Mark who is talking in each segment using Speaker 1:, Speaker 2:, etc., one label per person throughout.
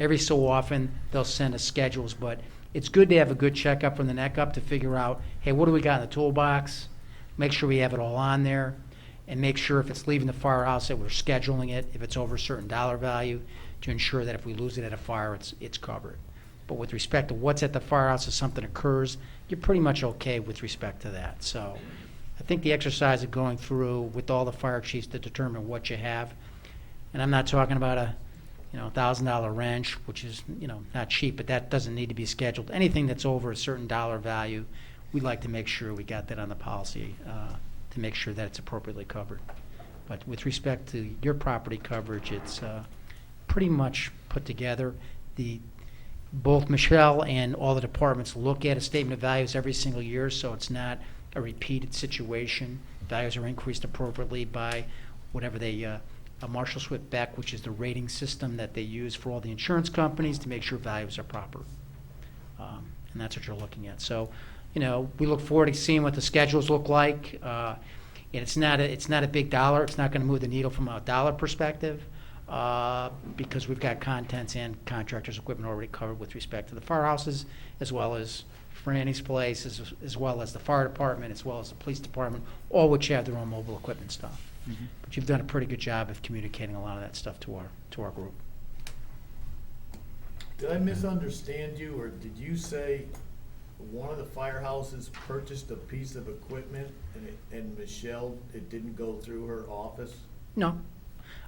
Speaker 1: every so often, they'll send us schedules, but it's good to have a good checkup from the neck up to figure out, hey, what do we got in the toolbox? Make sure we have it all on there, and make sure if it's leaving the firehouse that we're scheduling it, if it's over a certain dollar value, to ensure that if we lose it at a fire, it's, it's covered. But with respect to what's at the firehouse, if something occurs, you're pretty much okay with respect to that, so. I think the exercise of going through with all the fire chiefs to determine what you have, and I'm not talking about a, you know, thousand dollar wrench, which is, you know, not cheap, but that doesn't need to be scheduled. Anything that's over a certain dollar value, we'd like to make sure we got that on the policy, uh, to make sure that it's appropriately covered. But with respect to your property coverage, it's, uh, pretty much put together. The, both Michelle and all the departments look at a statement of values every single year, so it's not a repeated situation. Values are increased appropriately by whatever they, uh, a Marshall Swift Beck, which is the rating system that they use for all the insurance companies to make sure values are proper. Um, And that's what you're looking at. So, you know, we look forward to seeing what the schedules look like. Uh, And it's not, a- it's not a big dollar, it's not going to move the needle from a dollar perspective, uh, because we've got contents and contractors' equipment already covered with respect to the firehouses, as well as Franny's Place, as as well as the fire department, as well as the police department, all which have their own mobile equipment stuff. But you've done a pretty good job of communicating a lot of that stuff to our, to our group.
Speaker 2: Did I misunderstand you, or did you say one of the firehouses purchased a piece of equipment and it, and Michelle, it didn't go through her office?
Speaker 1: No.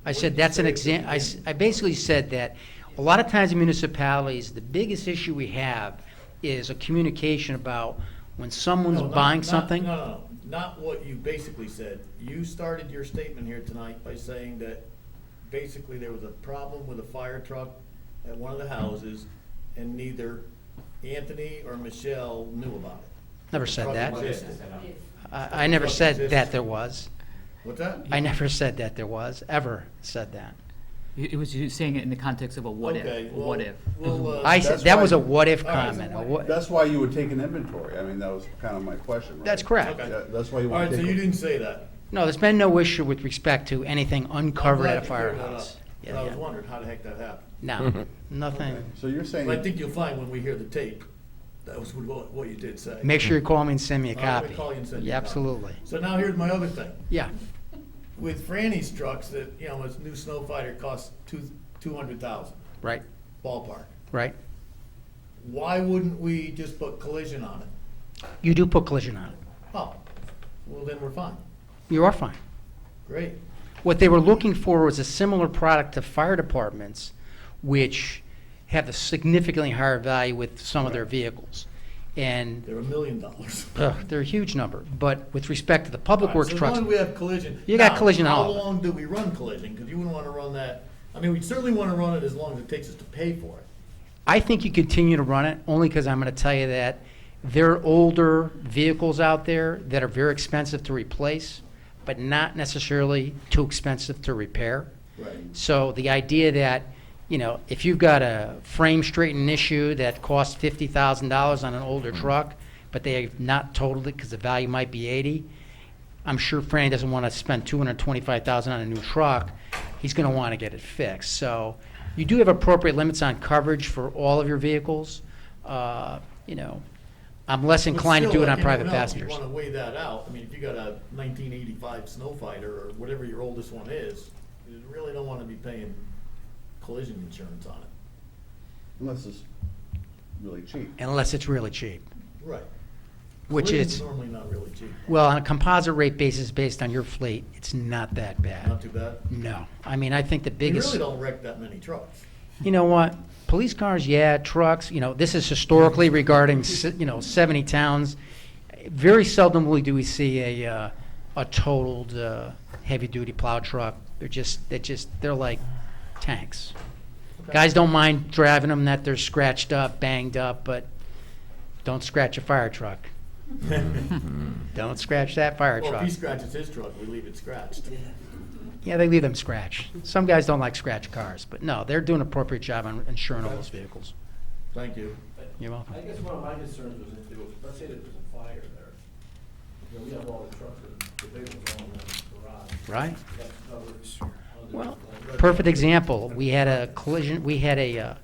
Speaker 1: I
Speaker 2: What
Speaker 1: said,
Speaker 2: did you
Speaker 1: that's an
Speaker 2: say at
Speaker 1: exam,
Speaker 2: the
Speaker 1: I, s-
Speaker 2: beginning?
Speaker 1: I basically said that a lot of times in municipalities, the biggest issue we have is a communication about when someone's
Speaker 2: No, not-
Speaker 1: buying
Speaker 2: not-
Speaker 1: something.
Speaker 2: No, no, no, not what you basically said. You started your statement here tonight by saying that basically there was a problem with a fire truck at one of the houses, and neither Anthony or Michelle knew about it.
Speaker 1: Never said that.
Speaker 2: Truck
Speaker 3: Yes.
Speaker 2: existed.
Speaker 1: I, I never
Speaker 2: Truck
Speaker 1: said that
Speaker 2: exists.
Speaker 1: there was.
Speaker 2: What's that?
Speaker 1: I never said that there was, ever said that.
Speaker 3: It it was you saying it in the context of a what if,
Speaker 2: Okay,
Speaker 3: a
Speaker 2: well,
Speaker 3: what if.
Speaker 2: we'll, uh,
Speaker 1: I said,
Speaker 4: That's
Speaker 1: that was a
Speaker 4: why-
Speaker 1: what-if
Speaker 2: All right.
Speaker 1: comment. a what-
Speaker 4: That's why you would take an inventory. I mean, that was kind of my question. right?
Speaker 1: That's correct.
Speaker 2: Okay.
Speaker 4: That- That's why you
Speaker 2: All
Speaker 4: want
Speaker 2: right,
Speaker 4: to
Speaker 2: so
Speaker 4: take.
Speaker 2: you
Speaker 4: it.
Speaker 2: didn't say that.
Speaker 1: No, there's been no issue with respect to anything uncovered at a
Speaker 2: I'm glad you cleared that
Speaker 1: firehouse.
Speaker 2: up,
Speaker 1: Yeah,
Speaker 2: but I was
Speaker 1: yeah.
Speaker 2: wondering how the heck that happened.
Speaker 1: No, nothing.
Speaker 4: Okay. So you're saying,
Speaker 2: But I think you'll find when we hear the tape, that was what, what you did say.
Speaker 1: Make sure you call me and send me a
Speaker 2: I'm gonna
Speaker 1: copy.
Speaker 2: call you and send you
Speaker 1: Yeah,
Speaker 2: a copy.
Speaker 1: Absolutely.
Speaker 2: So now here's my other thing.
Speaker 1: Yeah,
Speaker 2: With Franny's trucks that, you know, this new snow fighter costs two, two hundred thousand
Speaker 1: right,
Speaker 2: ballpark.
Speaker 1: right.
Speaker 2: Why wouldn't we just put collision on it?
Speaker 1: You do put collision on it.
Speaker 2: Oh, well then we're fine.
Speaker 1: You are fine.
Speaker 2: Great.
Speaker 1: What they were looking for was a similar product to fire departments, which have a significantly higher value with some of their vehicles. And
Speaker 2: They're a million dollars.
Speaker 1: ugh, they're a huge number. But with respect to the public
Speaker 2: All right,
Speaker 1: works
Speaker 2: so
Speaker 1: trucks,
Speaker 2: long we have collision.
Speaker 1: You got
Speaker 2: Now,
Speaker 1: collision on all of it.
Speaker 2: How long do we run collision? Because you wouldn't want to run that, I mean, we certainly want to run it as long as it takes us to pay for it.
Speaker 1: I think you continue to run it only because I'm going to tell you that there are older vehicles out there that are very expensive to replace, but not necessarily too expensive to repair.
Speaker 2: Right.
Speaker 1: So the idea that, you know, if you've got a frame straightening issue that costs fifty thousand dollars on an older truck, but they have not totaled it because the value might be eighty, I'm sure Franny doesn't want to spend two hundred twenty-five thousand on a new truck. He's going to want to get it fixed. So you do have appropriate limits on coverage for all of your vehicles. Uh, you know, I'm less
Speaker 2: But
Speaker 1: inclined to
Speaker 2: still,
Speaker 1: do it on
Speaker 2: like
Speaker 1: private
Speaker 2: anyone else,
Speaker 1: passengers.
Speaker 2: You wanna weigh that out, I mean, if you got a nineteen eighty-five Snow Fighter, or whatever your oldest one is, you really don't wanna be paying collision insurance on it.
Speaker 4: unless it's really cheap.
Speaker 1: Unless it's really cheap,
Speaker 2: Right.
Speaker 1: which
Speaker 2: Collision's
Speaker 1: is,
Speaker 2: Normally not really cheap,
Speaker 1: well, on a composite rate basis based on your fleet, it's not that bad.
Speaker 2: not too bad.
Speaker 1: No, I mean, I think the
Speaker 2: We
Speaker 1: Uh, biggest,
Speaker 2: really don't wreck that many trucks.
Speaker 1: you know what, police cars, yeah, trucks, you know, this is historically regarding, s- you know, 70 towns. Very seldomly do we see a, uh, a totaled uh, heavy-duty plow truck. They're just, they're just, they're like tanks.
Speaker 2: Okay.
Speaker 1: Guys don't mind driving them, that they're scratched up, banged up, but don't scratch a fire truck. Don't scratch that fire
Speaker 2: Well, if
Speaker 1: truck.
Speaker 2: he scratches his truck, we leave it scratched.
Speaker 1: Yeah, they leave them scratch. Some guys don't like scratch cars, but no, they're doing an appropriate job on insuring all those vehicles.
Speaker 2: Thank you.
Speaker 1: You're welcome.
Speaker 5: I guess one of my concerns was if there was, let's say there was a fire there. You know, we have all the trucks, the big ones all in the garage.
Speaker 1: Right?
Speaker 5: That's covered.
Speaker 1: Well, perfect example. We had a collision, we had a, uh,